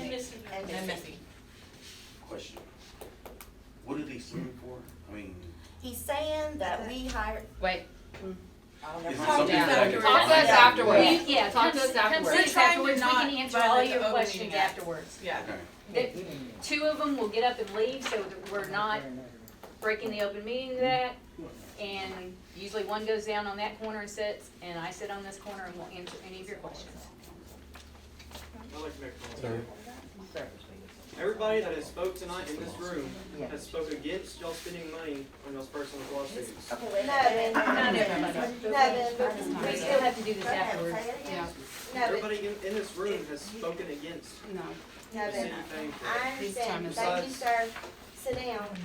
and then messy. Question. What are they suing for? I mean, He's saying that we hired, Wait, is it Calm something down. that I can? talk to us Yeah. afterwards. Yeah. Yeah, talk to us We're afterwards. trying to afterwards, we not can answer violate all the your Open Meeting questions Act. afterwards. Yeah. Okay, The- Two of them will get up and leave, so that we're not breaking the open meeting that. And usually one goes down on that corner and sits, and I sit on this corner and will answer any of your questions. I'd like to make a comment. Everybody that has spoke tonight in this room has spoke against y'all spending money on y'all's personal lawsuits. okay, wait, Nevin, Nevin, Nevin, Nevin, but We we still still. have to do this Go ahead, afterwards. say it Yeah. again. Nevin, Everybody in, in this room has spoken against No. the Nevin, city paying for it. I This time understand, is- thank you, sir, sit down.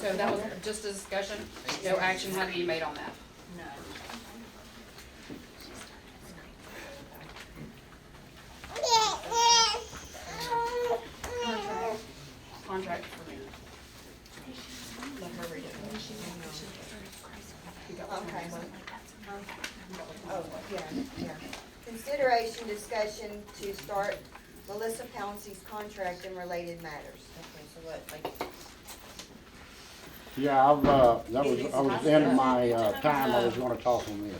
So that was just a discussion, no action had to be made on that. Contract for me. Let her read it. Okay. Oh, yeah, yeah. Consideration discussion to start Melissa Pouncey's contract and related matters. Okay, so what, like, Yeah, I've, uh, that was, I was in my, uh, time, I was gonna talk on this.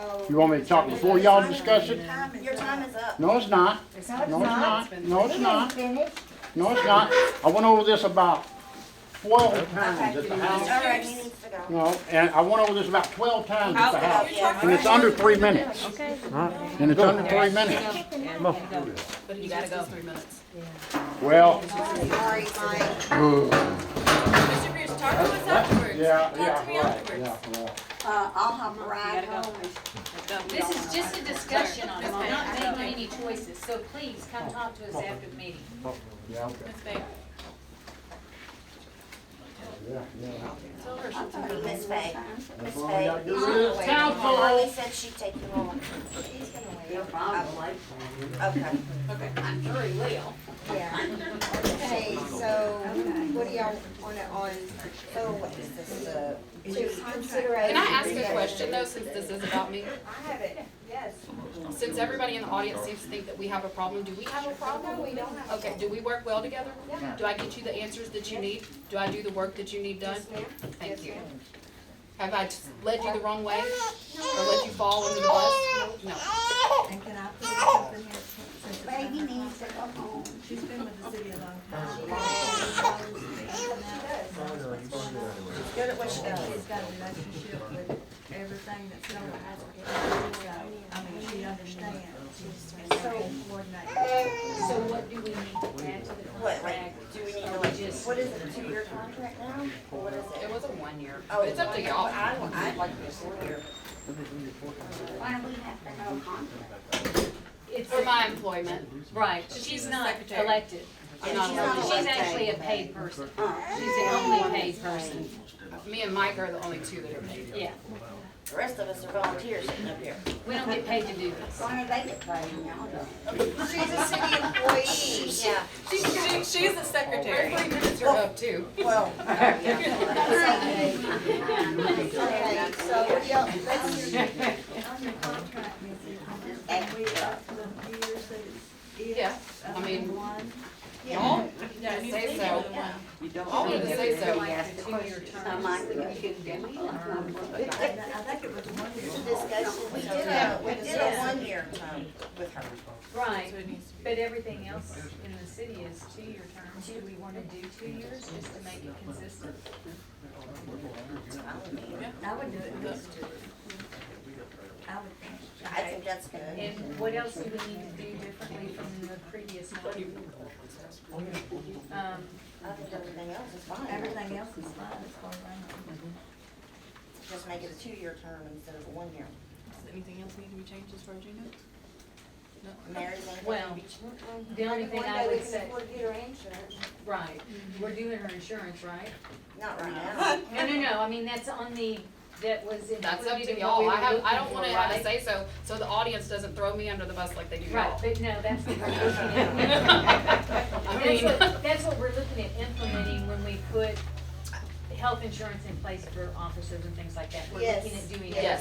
Oh. You want me to talk before y'all discuss it? Your time is up. No, it's not, It's no, it's not, no, it's not, Finished? no, it's not. I went over this about twelve times at the All house. right, he needs to go. No, and I went over this about twelve times at the house, you're and it's talking, under three minutes. And it's under three minutes. but you gotta go three minutes. Well, Sorry, Mike. Mr. Pierce, talk to us afterwards. yeah, Talk to me yeah, right, afterwards. yeah, right. Uh, I'll have a ride home. This is just a discussion on it, we're not making any choices, so please come talk to us after the meeting. yeah, okay, Ms. Faye. yeah, yeah. Miss Faye, Miss That's all I Faye. gotta do he's is gonna wait. counsel. Marley said she'd take you on. He's gonna wait. No problem. Okay, Okay. I'm sure he will. yeah. Okay, so what do y'all wanna on, so what is this, uh, to consideration? Can I ask a question though, since this is about me? I have it, yes. Since everybody in the audience seems to think that we have a problem, do we have a problem? No, we don't have a Okay, do we work well together? Yeah. Do I get you the answers that you need? Do I do the work that you need done? Yes, ma'am. Thank Yes, you. ma'am. Have I just led you the wrong way? Or let you fall under the bus? No. And can I put something here? since it's been- Baby needs to go home. She's been with the city a long time. She knows She's good at what she that does. She's got a relationship with everything that's going on. So, I mean, she understands. And they can coordinate. So what do we need to add to the What, contract? like, do we need to like, what is it, a two-year contract now? Or what is It it? was a one year. Oh, It's up to y'all. I, I'd like this four-year. It's, For my employment. right, she's not Secretary. elected. I'm not She's not elected. She's actually a paid person. She's the only paid person, Me and Mike are the only two that are paid. yeah. The rest of us are volunteers sitting up here. We don't get paid to do this. She's a city employee, yeah. She's, she- she's the secretary. Three minutes are up too. Well. Okay, so what do y'all, let's, On your contract, Ms. Eaton, and we up to the years that it's. Yeah, I mean- One. Y'all, Yeah, I need to Say think so. of the one. all of us say so. And I think it was one year. discussion, we did a, we did a one-year term with her. Right, It needs to be- but everything else in the city is two-year terms. Do we wanna do two years just to make it consistent? I would do it at least two. I would think. I think that's good. And what else do we need to do differently from the previous one? Um, I think everything else is fine. Everything else is fine as far as I know. Just make it a two-year term instead of a one-year. Does anything else need to be changed as far as you know? Mary's Well, the only thing I would say- One day we can afford to get her insurance. right, we're doing her insurance, right? Not right now. No, no, no, I mean, that's on the, that was That's up included to in what we y'all. were I have, I looking don't for, wanna have a right? say so, so the audience doesn't throw me under the bus like they do Right, y'all. but no, that's what we're looking at. I That's mean, what, that's what we're looking at implementing when we put health insurance in place for officers and things like that. We're looking Yes, at doing yes.